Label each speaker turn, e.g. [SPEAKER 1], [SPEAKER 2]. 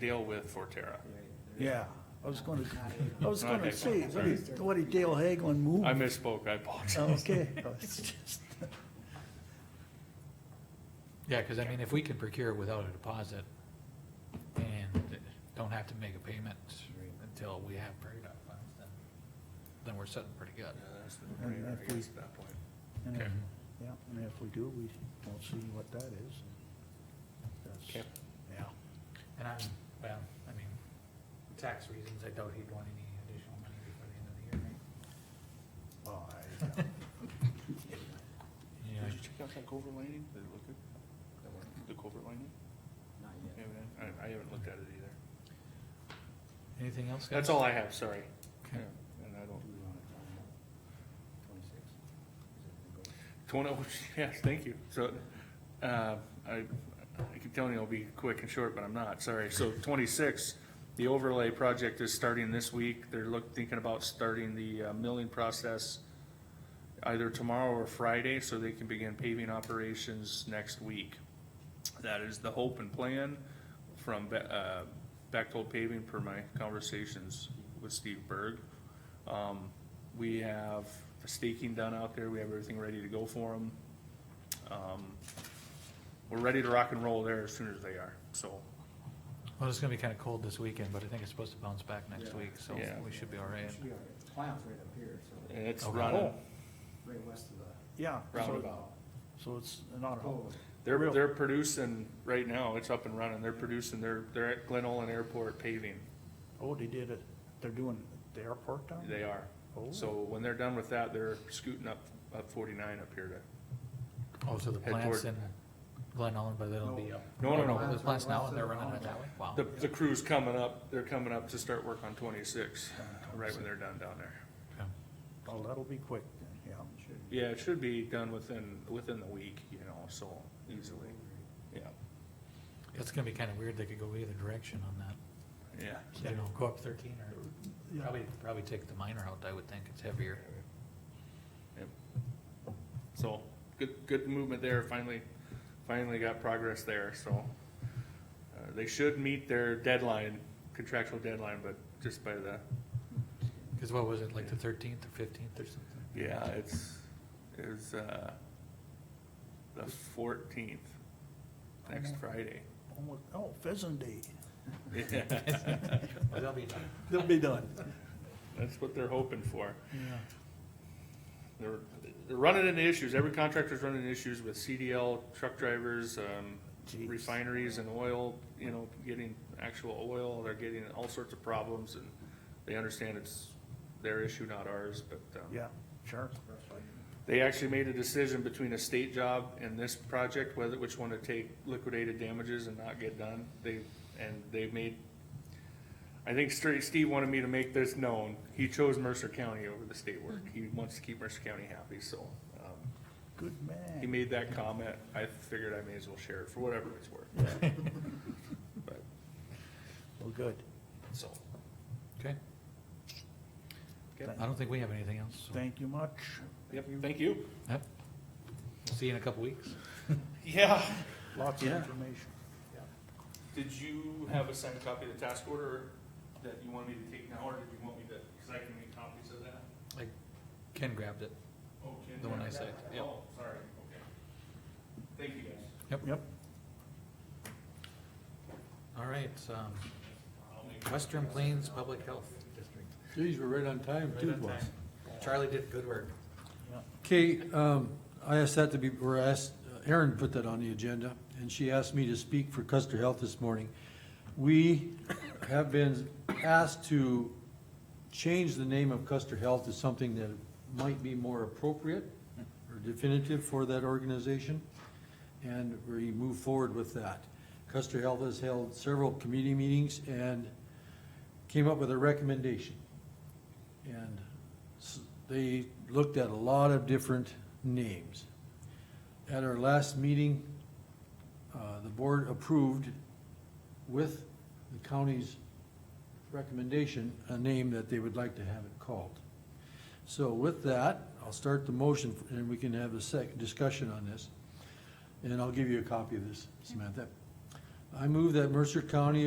[SPEAKER 1] deal with Forterra.
[SPEAKER 2] Yeah, I was gonna, I was
[SPEAKER 1] Not
[SPEAKER 2] gonna
[SPEAKER 1] Hagelin,
[SPEAKER 2] say, what
[SPEAKER 1] sorry.
[SPEAKER 2] did, what did Dale Hagelin move?
[SPEAKER 1] I misspoke, I apologize.
[SPEAKER 2] Oh, Okay, it's just,
[SPEAKER 3] Yeah, because I mean, if we can procure it without a deposit and don't have to make a payment until we have prairie dog funds, then, then we're sitting pretty good.
[SPEAKER 1] Yeah, that's the
[SPEAKER 2] And
[SPEAKER 1] brainer,
[SPEAKER 2] if
[SPEAKER 1] I
[SPEAKER 2] we-
[SPEAKER 1] guess, at that point.
[SPEAKER 2] and if-
[SPEAKER 3] Okay.
[SPEAKER 2] yeah, and if we do, we won't see what that is. That's-
[SPEAKER 1] Okay.
[SPEAKER 2] Yeah,
[SPEAKER 3] And I'm, well, I mean, for tax reasons, I doubt he'd want any additional money before the end of the year, right?
[SPEAKER 2] well, Oh, I-
[SPEAKER 1] Did you check out that covert lining? Did it look good? The covert lining?
[SPEAKER 4] Not
[SPEAKER 1] Yeah, man, I, I haven't looked at it either.
[SPEAKER 3] Anything else, guys?
[SPEAKER 1] That's all I have, sorry.
[SPEAKER 3] Okay.
[SPEAKER 1] Yeah, And I don't,
[SPEAKER 4] Twenty-six.
[SPEAKER 1] Twenty, yes, thank you. So, uh, I, I keep telling you I'll be quick and short, but I'm not, sorry. So twenty-six, the overlay project is starting this week. They're look, thinking about starting the uh, milling process either tomorrow or Friday, so they can begin paving operations next week. That is the hope and plan from, Be- uh, Bechtold Paving per my conversations with Steve Berg. Um, we have the staking done out there, we have everything ready to go for them. Um, we're ready to rock and roll there as soon as they are, so,
[SPEAKER 3] Well, it's gonna be kind of cold this weekend, but I think it's supposed to bounce back next
[SPEAKER 4] Yeah.
[SPEAKER 3] week, so
[SPEAKER 1] Yeah.
[SPEAKER 3] we should be all right.
[SPEAKER 4] Should be all right. Clown's right up here, so
[SPEAKER 1] and it's
[SPEAKER 3] Okay.
[SPEAKER 1] running.
[SPEAKER 2] Oh.
[SPEAKER 4] right west of the.
[SPEAKER 2] Yeah, so,
[SPEAKER 1] Roundabout.
[SPEAKER 2] so it's not,
[SPEAKER 4] Oh,
[SPEAKER 1] They're,
[SPEAKER 2] Real.
[SPEAKER 1] they're producing, right now, it's up and running, they're producing, they're, they're at Glen Olin Airport paving,
[SPEAKER 2] oh, they did it, they're doing the airport down? there?
[SPEAKER 1] they are.
[SPEAKER 2] Oh.
[SPEAKER 1] So when they're done with that, they're scooting up, up forty-nine up here
[SPEAKER 3] Oh, so the
[SPEAKER 1] Head
[SPEAKER 3] plant's
[SPEAKER 1] toward-
[SPEAKER 3] in Glen Ellen, but it'll be up.
[SPEAKER 1] No, no, no.
[SPEAKER 3] Oh, The plant's now, and they're running it that way? Wow.
[SPEAKER 1] to, the, the crew's coming up, they're coming up to start work on twenty-six, right when they're done down there.
[SPEAKER 3] Okay.
[SPEAKER 2] Oh, that'll be quick, then, yeah.
[SPEAKER 4] should
[SPEAKER 1] Yeah, it should be done within, within the week, you know, so easily, yeah,
[SPEAKER 3] It's gonna be kind of weird, they could go either direction on that,
[SPEAKER 1] yeah.
[SPEAKER 3] you know, go up thirteen or,
[SPEAKER 2] Yeah.
[SPEAKER 3] probably, probably take the minor out, I would think, it's heavier.
[SPEAKER 1] Yep. So, good, good movement there, finally, finally got progress there, so. uh, They should meet their deadline, contractual deadline, but just by the,
[SPEAKER 3] Cause what was it, like the thirteenth or fifteenth or something?
[SPEAKER 1] yeah, it's, it's, uh, the fourteenth, next Friday.
[SPEAKER 2] Almost, oh, Pheasant Day,
[SPEAKER 3] Well, they'll be done.
[SPEAKER 2] they'll be done.
[SPEAKER 1] That's what they're hoping for.
[SPEAKER 2] Yeah.
[SPEAKER 1] They're, they're running into issues, every contractor's running into issues with CDL, truck drivers, um,
[SPEAKER 2] Jeez.
[SPEAKER 1] refineries and oil, you know, getting actual oil, they're getting all sorts of problems and they understand it's their issue, not ours, but, um,
[SPEAKER 2] Yeah, sure.
[SPEAKER 1] they actually made a decision between a state job and this project, whether, which one to take liquidated damages and not get done. They, and they made, I think Stra- Steve wanted me to make this known. He chose Mercer County over the state work. He wants to keep Mercer County happy, so, um,
[SPEAKER 2] Good
[SPEAKER 1] he
[SPEAKER 2] man.
[SPEAKER 1] made that comment. I figured I may as well share it for whatever it's worth. But,
[SPEAKER 2] Well, good.
[SPEAKER 1] so,
[SPEAKER 3] Okay,
[SPEAKER 1] Okay.
[SPEAKER 3] I don't think we have anything else, so,
[SPEAKER 2] Thank you much.
[SPEAKER 1] yep, thank you.
[SPEAKER 3] yep. See you in a couple weeks.
[SPEAKER 1] Yeah.
[SPEAKER 2] Lots of
[SPEAKER 1] Yeah.
[SPEAKER 2] information.
[SPEAKER 1] Did you have a signed copy of the task order that you wanted me to take now, or did you want me to, cause I can make copies of that?
[SPEAKER 3] Like, Ken grabbed it,
[SPEAKER 1] Oh, Ken,
[SPEAKER 3] The one I
[SPEAKER 1] yeah.
[SPEAKER 3] saved, yep.
[SPEAKER 1] Oh, sorry, okay. Thank you, guys.
[SPEAKER 2] Yep.
[SPEAKER 3] all right, um, Western Plains Public Health District,
[SPEAKER 5] Geez, we're right on time,
[SPEAKER 3] Right
[SPEAKER 5] too,
[SPEAKER 3] on
[SPEAKER 5] boss.
[SPEAKER 3] time. Charlie did good work.
[SPEAKER 5] Okay, um, I asked that to be, or asked, Erin put that on the agenda, and she asked me to speak for Custer Health this morning. We have been asked to change the name of Custer Health to something that might be more appropriate or definitive for that organization, and we move forward with that. Custer Health has held several committee meetings and came up with a recommendation. And s- they looked at a lot of different names. At our last meeting, uh, the board approved with the county's recommendation, a name that they would like to have it called. So with that, I'll start the motion and we can have a sec, discussion on this. And I'll give you a copy of this, Samantha. I move that Mercer County